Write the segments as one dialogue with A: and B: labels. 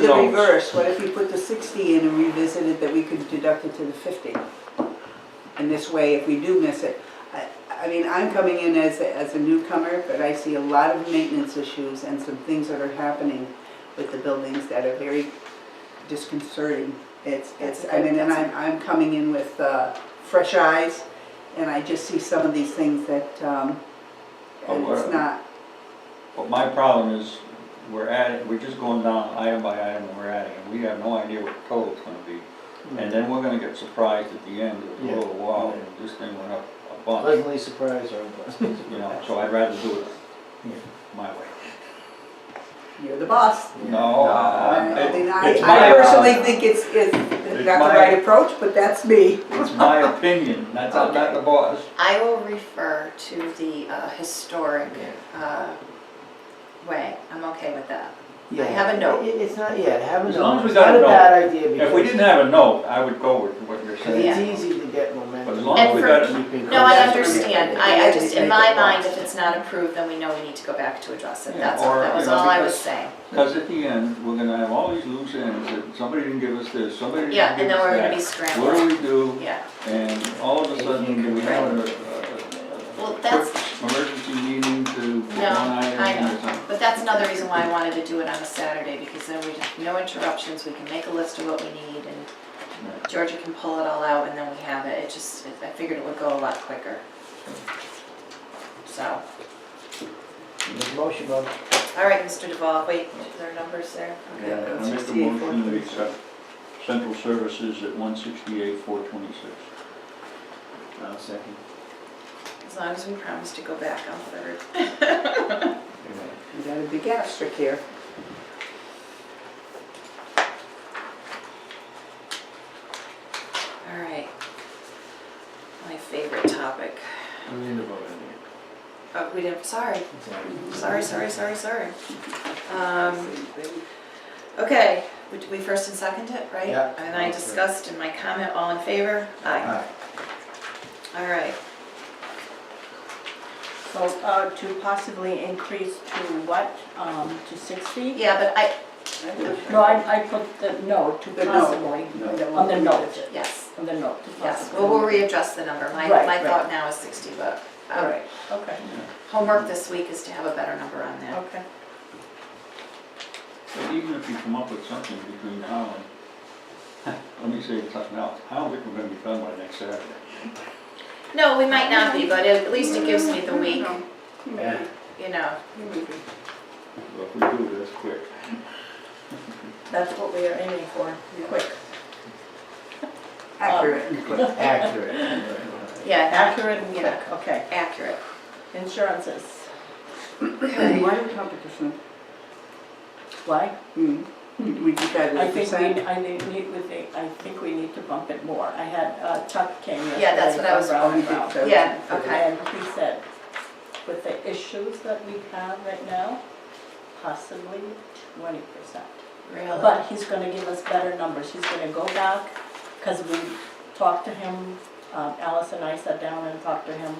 A: the
B: don't-
A: reverse, what if you put the sixty in and revisited that we could deduct it to the fifty? And this way, if we do miss it, I, I mean, I'm coming in as, a- as a newcomer, but I see a lot of maintenance issues and some things that are happening with the buildings that are very disconcerting. It's, it's, I mean, and I'm, I'm coming in with, uh, fresh eyes, and I just see some of these things that, um, and it's
B: Aware.
A: not,
B: But my problem is, we're adding, we're just going down item by item and we're adding, and we have no idea what the total's gonna be. And then we're gonna get surprised at the end, with a
C: Yeah.
B: little wow, and this thing went up a bunch,
C: Pleasantly surprised or unpleasant.
B: you know, so I'd rather do it my way.
A: you're the boss.
B: No,
A: I- I
B: I-
A: mean,
B: it's
A: I,
B: my uh,
A: I personally
B: problem.
A: think it's, it's
B: It's
A: not the
B: my-
A: right approach, but that's me.
B: It's my opinion, that's, I'm not the boss.
D: I will refer to the uh, historic uh, way. I'm okay with that.
C: Yeah.
D: I have a note.
C: It- It's not, yeah, have a note.
B: As long as we
C: It's
B: got a
C: Not a
B: note.
C: bad idea
B: If we
C: because
B: didn't have a note, I would go with what you're
C: because
B: saying.
C: it's
D: Yeah.
C: easy to get momentum.
B: But as long as
D: And
B: we
D: for-
B: got,
C: You can
D: No, I
C: come back.
D: understand. I, I just, in my mind, if it's not approved, then we know we need to go back to address it.
B: Yeah,
D: That's all,
B: or,
D: that
B: you
D: was
B: know,
D: all I was
B: because-
D: saying.
B: because at the end, we're gonna have all these loose ends, that somebody didn't give us this, somebody didn't give us
D: Yeah,
B: that.
D: and then we're gonna be
B: What do
D: scrambling.
B: we do?
D: Yeah,
B: And all of a sudden, we have a, a- a
D: Well,
B: quick
D: that's-
B: emergency meeting to put
D: No,
B: one
D: I
B: item
D: know.
B: or something.
D: but that's another reason why I wanted to do it on a Saturday, because then we, no interruptions, we can make a list of what we need, and Georgia can pull it all out, and then we have it. It just, I figured it would go a lot quicker. So.
C: There's a motion on,
D: All right, Mr. Duval, wait, is there numbers there? Okay.
B: Yeah, I make a
A: 68,
B: motion to accept central services at one sixty-eight, four twenty-six.
C: I'll second.
D: As long as we promise to go back on third.
A: You got a big asterisk here.
D: All right. My favorite topic.
C: I'm in the vote on
D: Oh, we didn't, sorry,
C: it.
D: sorry, sorry, sorry, sorry. Um, okay, we, we first and second it, right?
C: Yeah.
D: And I discussed in my comment, all in favor? Aye.
C: Aye.
D: All right.
E: So uh, to possibly increase to what, um, to 60?
D: Yeah, but I,
E: No, I, I put the no, to
A: The no.
E: possibly, on the note,
D: yes,
E: on the note, to
D: yes,
E: possibly.
D: well, we'll readjust the number. My,
E: Right,
D: my
E: right.
D: thought now is sixty, but
E: All
D: um,
E: right, okay,
D: homework this week is to have a better number on that.
E: okay.
B: But even if you come up with something between now and, let me say something else, I don't think we're gonna be done by next Saturday.
D: No, we might not be, but at least it gives me the week,
C: Yeah.
D: you know.
B: But if we do, that's quick.
E: That's what we are aiming for, quick.
A: Accurate
E: Um,
A: and quick.
C: Accurate.
D: Yeah,
E: Accurate and quick,
D: Yeah.
E: okay.
D: accurate.
E: Insurances,
A: Why do competition?
E: why?
A: Hmm. We decided
E: I
A: to
E: think
A: percent.
E: we, I need, need- we think- I think we need to bump it more. I had uh, Chuck came yesterday.
D: Yeah, that's what I
E: from
D: was-
E: Brown and
A: Oh, he did
E: Brown.
A: so.
D: Yeah, okay.
E: And he said, with the issues that we have right now, possibly twenty percent.
D: Really?
E: But he's gonna give us better numbers, he's gonna go back, because we talked to him, um, Alice and I sat down and talked to him.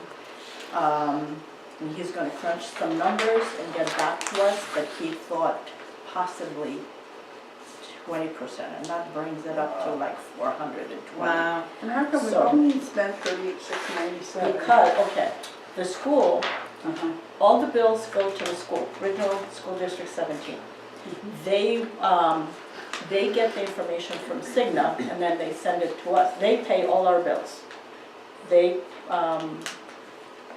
E: Um, And he's gonna crunch some numbers and get back to us, but he thought possibly twenty percent, and that brings it up to like four hundred and twenty.
D: Wow.
A: And how come we
E: So-
A: only spent thirty-eight, six ninety-seven? Uh-huh.
E: Because, okay, the school all the bills go to the school, Regional School District 17. They, um, they get the information from Cigna, and then they send it to us. They pay all our bills. They um,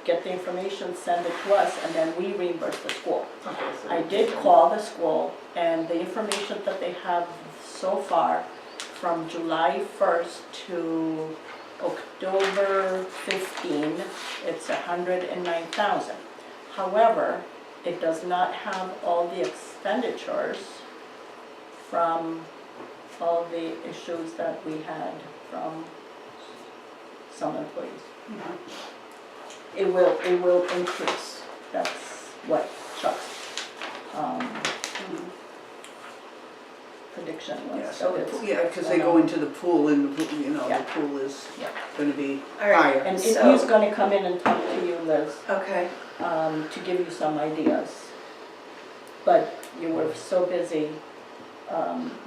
E: get the information, send it to us, and then we reimburse the school. I did call the school, and the information that they have so far, from July 1st to October 15, it's 109,000. However, it does not have all the expenditures from all the issues that we had from some employees. It will, it will increase, that's what Chuck's, um, prediction
A: Yeah,
E: was,
A: so
E: so
A: the
E: it's.
A: pool- yeah, because they go into the pool and, the pool, you know,
E: Yeah.
A: the pool is
E: Yeah.
A: gonna be
D: All right.
A: higher.
E: And he's
D: So-
E: gonna come in and talk to you, Liz,
D: Okay.
E: um, to give you some ideas. But you were so busy, um,